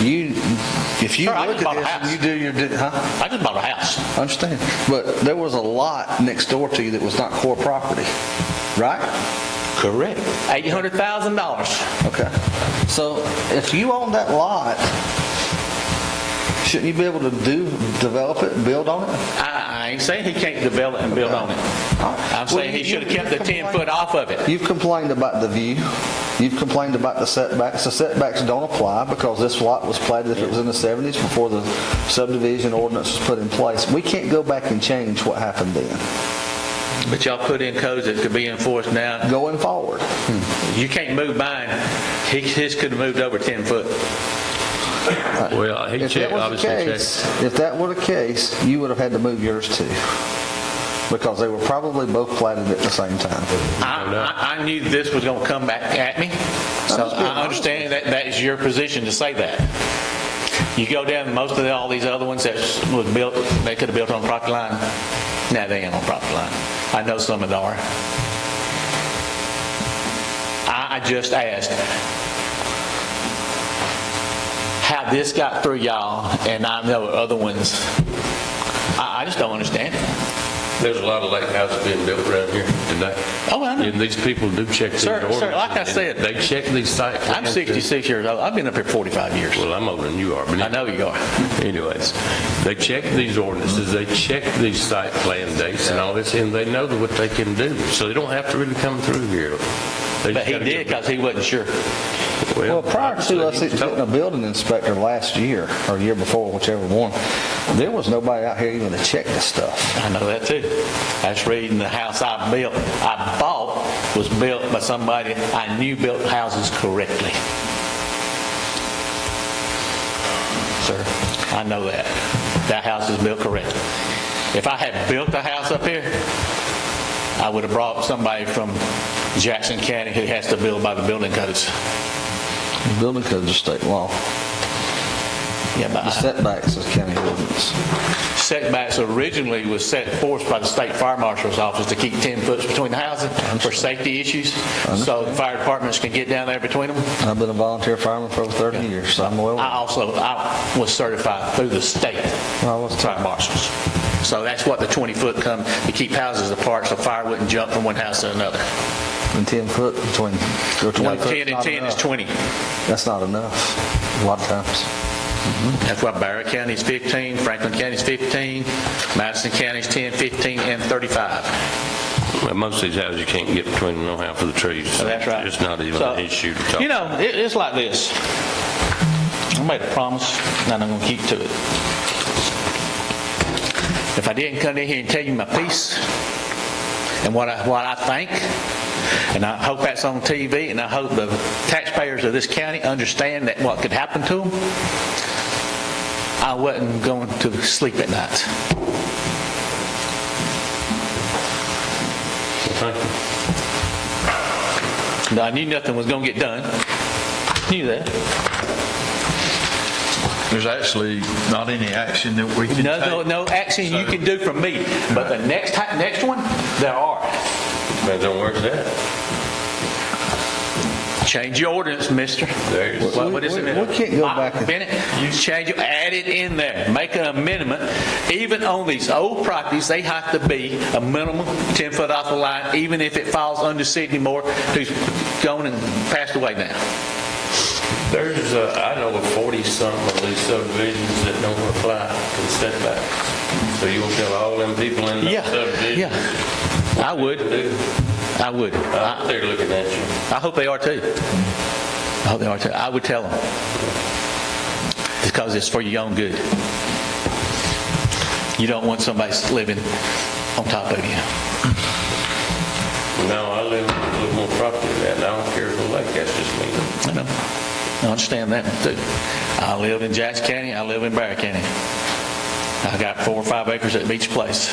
You, if you Sure, I look at just bought a this and house. you do your, di- huh? I just bought a house. I Understand? But there was a lot next door to you that was not core property, right? Correct. Eight hundred thousand dollars. Okay. So if you own that lot, shouldn't you be able to do, develop it, build on it? I, I ain't saying he can't develop and build on it. I'm saying he should have kept the ten foot off of it. You've complained about the view. You've complained about the setbacks. The setbacks don't apply because this lot was platted if it was in the 70s before the subdivision ordinance was put in place. We can't go back and change what happened then, But y'all put in codes that could be enforced now. going forward. You can't move mine. He, his could have moved over ten foot. Well, he If that checked, was the obviously case, checked. if that were the case, you would have had to move yours too, because they were probably both platted at the same time. I, I, I knew this was gonna come back at me, so I understand that that is your position to say that. You go down, most of the- all these other ones that was built, they could have built on property line. Now they ain't on property line. I know some of them are. I, I just asked how this got through y'all, and I know other ones. I, I just don't understand it. There's a lot of lake houses being built around here today. Oh, I know. And these people do check these Sir, sir, ordinances. like I and said, They check these site plans. I'm and- 66 years old. I've been up here 45 years. Well, I'm older than you are, but. I know you are. Anyways, they check these ordinances, they check these site plan dates and all this, and they know what they can do, so they don't have to really come through here. They But just he gotta did get- because he wasn't sure. Well, prior obviously, to us he was told. getting a building inspector last year, or year before, whichever one, there was nobody out here even to check this stuff. I know that too. That's reading the house I built, I bought, was built by somebody I knew built houses correctly. Sir, I know that. That house is built correctly. If I had built a house up here, I would have brought somebody from Jackson County who has to build by the building codes. Building codes are state law. Yeah, but The I- setbacks is county ordinance. setbacks originally was set forth by the state fire marshal's office to keep 10 foot between the houses for safety issues, so the fire departments can get down there between them. I've been a volunteer fireman for over 30 years, so I'm I well, also, I was certified through the state Well, what's- fire marshals. So that's what the 20 foot come, to keep houses apart so fire wouldn't jump from one house to another. and 10 foot between, or 20 No, foot. 10 and 10 is 20. That's not enough, a lot of times. That's why Barrow County's 15, Franklin County's 15, Madison County's 10, 15, and 35. Well, Most of these houses, you can't get between them, no half of the trees. so Oh, That's right. It's not even So, an issue to talk You know, it, it's like this. I made a promise, and I'm gonna keep to it. If I didn't come in here and tell you my piece, and what I, what I think, and I hope that's on TV, and I hope the taxpayers of this county understand that what could happen to them, I wasn't going to sleep at night. Thank you. No, I knew nothing was gonna get done. Knew that. There's actually not any action that we can take. No, no, no action you can do from me, but the next, ti- next one, there are. Depends on where it's at. Change your ordinance, mister. There it is. What what is it? We- we- we can't go Uh, back and- Bennett, you change, it, add it in there, make an amendment. Even on these old properties, they have to be a minimum 10-foot off the line, even if it falls under Sidney Moore, who's gone and passed away now. There's, uh, I know of 40-something of these subdivisions that don't apply to the setbacks. So you'll tell all them people in Yeah, that subdivision. yeah. I would, do. I would. I They're looking at you. I hope they are too. I hope they are too. I would tell them. Because it's for your own good. You don't want somebody living on top of you. No, I live a little more property than that, and I don't care if the lake, that's just me. I know. I understand that too. I live in Jackson County, I live in Barrow County. I got four or five acres at Beach Place.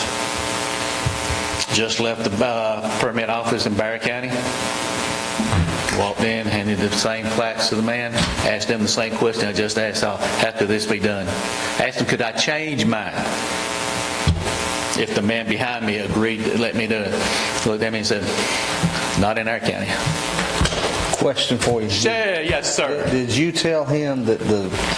Just left the uh, permit office in Barrow County. Walked in, handed the same plaques to the man, asked him the same question I just asked, how how could this be done? Asked him, could I change mine? If the man behind me agreed to let me do it. Looked at me and said, not in our county. Question for you. Yeah, yes, sir. Did you tell him that the